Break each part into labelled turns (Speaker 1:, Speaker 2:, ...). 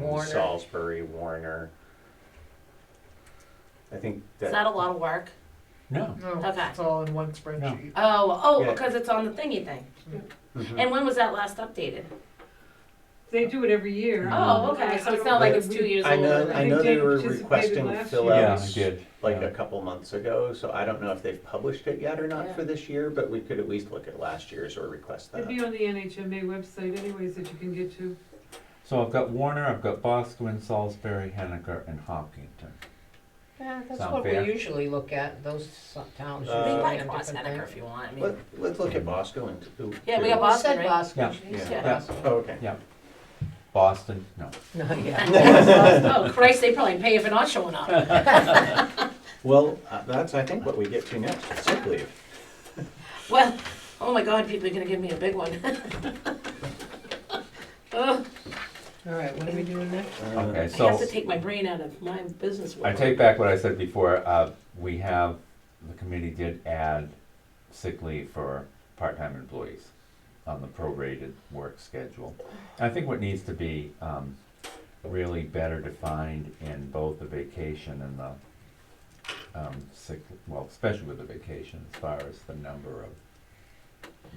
Speaker 1: Warner.
Speaker 2: Salisbury, Warner. I think
Speaker 3: Is
Speaker 2: that,
Speaker 3: that a lot of work?
Speaker 4: No,
Speaker 1: No,
Speaker 3: Okay.
Speaker 1: it's all in one spreadsheet.
Speaker 3: Oh, oh,
Speaker 2: Yeah.
Speaker 3: because it's on the thingy thing.
Speaker 4: Mm-hmm.
Speaker 2: Mhm.
Speaker 3: And when was that last updated?
Speaker 5: They do it every year.
Speaker 4: Mm-hmm.
Speaker 3: Oh, okay. So it's not like it's two years
Speaker 2: I
Speaker 3: old.
Speaker 2: know,
Speaker 3: or
Speaker 2: I
Speaker 5: think
Speaker 2: know they
Speaker 5: Dave
Speaker 2: were
Speaker 5: participated
Speaker 2: requesting
Speaker 5: last
Speaker 2: fill
Speaker 5: year.
Speaker 4: yeah, I
Speaker 2: outs
Speaker 4: did.
Speaker 2: like
Speaker 4: yeah.
Speaker 2: a couple months ago, so I don't know if they've published it yet or not
Speaker 3: Yeah.
Speaker 2: for this year, but we could at least look at last year's or request
Speaker 5: It'd
Speaker 2: that.
Speaker 5: be on the NHMA website anyways that you can get to.
Speaker 4: So I've got Warner, I've got Boscawen, Salisbury, Henniker, and Hopkinton.
Speaker 1: Yeah, that's
Speaker 4: Sound
Speaker 1: what
Speaker 4: fair?
Speaker 1: we usually look at, those so- towns.
Speaker 2: Uh,
Speaker 3: something.
Speaker 1: usually
Speaker 3: We might
Speaker 1: have
Speaker 3: cross
Speaker 1: different
Speaker 3: Henniker if
Speaker 1: things.
Speaker 3: you want. I mean,
Speaker 2: Let, let's look at Bosco and. ooh,
Speaker 3: Yeah, we
Speaker 2: too.
Speaker 3: got Boston,
Speaker 1: Said
Speaker 3: right?
Speaker 1: Boston,
Speaker 4: Yeah.
Speaker 1: she said
Speaker 3: Yeah.
Speaker 1: Boston.
Speaker 2: Oh, okay.
Speaker 4: Yeah. Boston, no.
Speaker 1: No, yeah.
Speaker 3: oh Christ, they probably pay if you're not showing up.
Speaker 2: Well, uh, that's, I think, what we get to next, sick leave.
Speaker 3: Well, oh my God, people are gonna give me a big one. Ugh,
Speaker 1: All right, what are we doing next?
Speaker 2: Uh,
Speaker 4: Okay,
Speaker 3: I have
Speaker 4: so
Speaker 3: to take my brain out of my business
Speaker 4: I
Speaker 3: world.
Speaker 4: take back what I said before. Uh, we have, the committee did add sick leave for part-time employees on the prorated work schedule. I think what needs to be, um, really better defined in both the vacation and the, um, sick, well, especially with the vacation, as far as the number of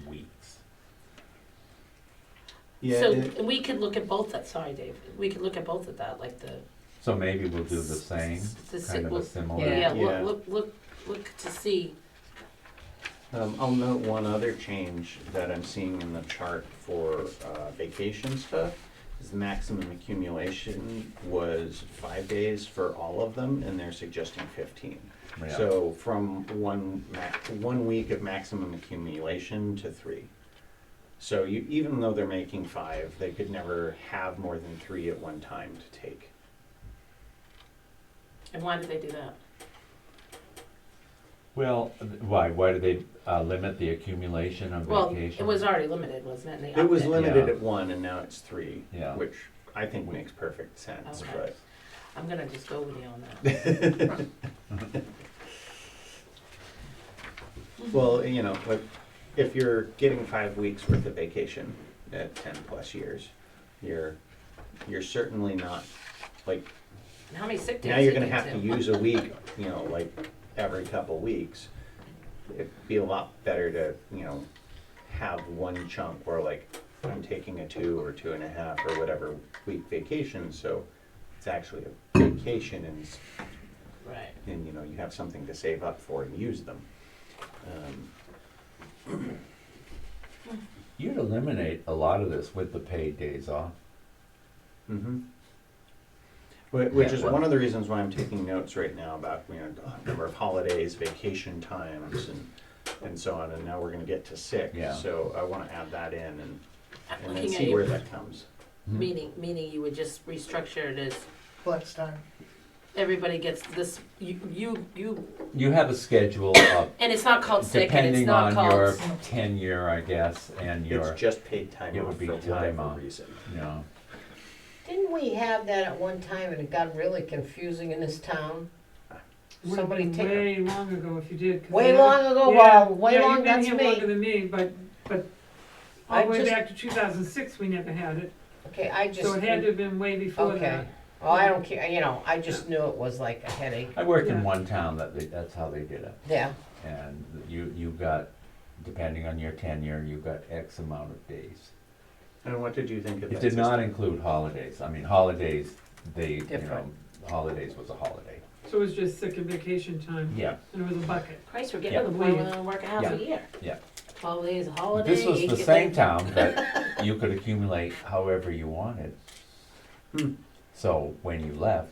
Speaker 4: weeks.
Speaker 2: Yeah, it-
Speaker 3: So we could look at both that, sorry Dave, we could look at both of that, like the.
Speaker 4: So maybe we'll do the same,
Speaker 3: the sick-
Speaker 4: kind of a
Speaker 3: we'll-
Speaker 4: similar.
Speaker 3: Yeah,
Speaker 1: Yeah.
Speaker 2: Yeah.
Speaker 3: look, look, look, look to see.
Speaker 2: Um, I'll note one other change that I'm seeing in the chart for uh, vacation stuff. Is the maximum accumulation was five days for all of them, and they're suggesting fifteen.
Speaker 4: Yeah.
Speaker 2: So from one max, one week of maximum accumulation to three. So you, even though they're making five, they could never have more than three at one time to take.
Speaker 3: And why did they do that?
Speaker 4: Well, why, why do they uh, limit the accumulation of
Speaker 3: Well,
Speaker 4: vacation?
Speaker 3: it was already limited, wasn't it? And they
Speaker 2: It was
Speaker 3: upped
Speaker 2: limited
Speaker 4: Yeah.
Speaker 2: at one, and now it's three,
Speaker 4: Yeah.
Speaker 2: which I think makes perfect sense,
Speaker 3: Okay.
Speaker 2: but.
Speaker 3: I'm gonna just go with you on that.
Speaker 2: Well, you know, like, if you're getting five weeks worth of vacation at ten plus years, you're, you're certainly not, like,
Speaker 3: And How many sick days?
Speaker 2: now you're
Speaker 3: you
Speaker 2: gonna
Speaker 3: get
Speaker 2: have to use a week, you know, like, every couple weeks. It'd be a lot better to, you know, have one chunk where like, I'm taking a two or two and a half or whatever week vacation, so it's actually a vacation and it's
Speaker 3: Right.
Speaker 2: and you know you have something to save up for and use them. Um,
Speaker 4: You'd eliminate a lot of this with the paid days off.
Speaker 2: mhm. Whi- Which is
Speaker 4: Mm-hmm. Yeah,
Speaker 2: one of the reasons why I'm taking notes right now about you know number of holidays, vacation times, and and so on. And now we're going to get to sick,
Speaker 4: Yeah.
Speaker 2: so I want to add that in and
Speaker 3: I'm
Speaker 2: and then
Speaker 3: looking at
Speaker 2: see where
Speaker 3: you,
Speaker 2: that comes.
Speaker 4: Mm-hmm.
Speaker 3: meaning, meaning you would just restructure it as
Speaker 1: Flex time.
Speaker 3: everybody gets this, you, you, you,
Speaker 4: You have a schedule of,
Speaker 3: and it's not called sick and it's
Speaker 4: depending
Speaker 3: not
Speaker 4: on your
Speaker 3: called.
Speaker 4: tenure, I guess, and your,
Speaker 2: it's just paid time
Speaker 4: it
Speaker 2: off
Speaker 4: would be
Speaker 2: for
Speaker 4: time
Speaker 2: whatever
Speaker 4: off.
Speaker 2: reason.
Speaker 4: you know,
Speaker 1: Didn't we have that at one time and it got really confusing in this town?
Speaker 5: Would've
Speaker 1: Somebody
Speaker 5: been
Speaker 1: take a-
Speaker 5: Way long ago if you did. 'cause
Speaker 1: Way
Speaker 5: they-
Speaker 1: long ago,
Speaker 5: Yeah,
Speaker 1: wow, way
Speaker 5: yeah,
Speaker 1: long, that's
Speaker 5: You've been here longer
Speaker 1: me.
Speaker 5: than me, but, but all
Speaker 1: I
Speaker 5: the way
Speaker 1: just-
Speaker 5: back to two thousand six, we never had it.
Speaker 1: Okay, I just,
Speaker 5: So it had to have been way before
Speaker 1: okay.
Speaker 5: that.
Speaker 1: Oh, I don't care, you know, I just knew it was like a headache.
Speaker 4: I worked in
Speaker 5: Yeah.
Speaker 4: one town that they, that's how they did it.
Speaker 1: Yeah,
Speaker 4: And you, you got, depending on your tenure, you got X amount of days.
Speaker 2: And what did you think of
Speaker 4: It
Speaker 2: that
Speaker 4: did not
Speaker 2: system?
Speaker 4: include holidays. I mean, holidays, they, you know,
Speaker 1: Different.
Speaker 4: holidays was a holiday.
Speaker 5: So it was just sick and vacation time,
Speaker 4: Yeah,
Speaker 5: and it was a bucket.
Speaker 3: Christ, we're
Speaker 4: Yeah.
Speaker 3: getting to the point where we only work a half
Speaker 4: Yeah.
Speaker 3: a year.
Speaker 4: Yeah.
Speaker 3: Twelve days, a holiday.
Speaker 4: This was
Speaker 3: eight
Speaker 4: the
Speaker 3: get
Speaker 4: same
Speaker 3: laid-
Speaker 4: town that you could accumulate however you wanted.
Speaker 2: Hmm.
Speaker 4: So when you left,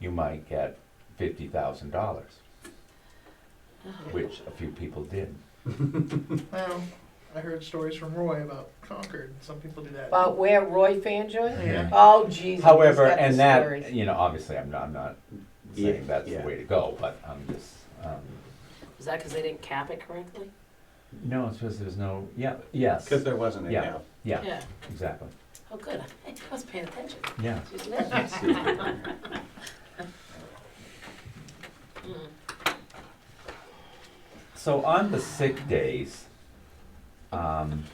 Speaker 4: you might get fifty thousand dollars, which a few people did.
Speaker 1: well,
Speaker 6: I heard stories from Roy about Concord. Some people do that.
Speaker 1: about where Roy Fanjoy?
Speaker 6: Yeah.
Speaker 1: Oh, Jesus.
Speaker 4: However,
Speaker 1: he's got the
Speaker 4: and that,
Speaker 1: stories.
Speaker 4: you know, obviously, I'm not, I'm not saying
Speaker 2: Yeah,
Speaker 4: that's the
Speaker 2: yeah.
Speaker 4: way to go, but I'm just, um,
Speaker 3: Was that because they didn't cap it correctly?
Speaker 4: no, it's because there's no, yeah, yes,
Speaker 2: Because there wasn't a
Speaker 4: Yeah.
Speaker 2: gap.
Speaker 4: yeah, exactly,
Speaker 3: Oh, good. I was paying attention.
Speaker 4: yeah.
Speaker 3: Just listening.
Speaker 4: So on the sick days, um,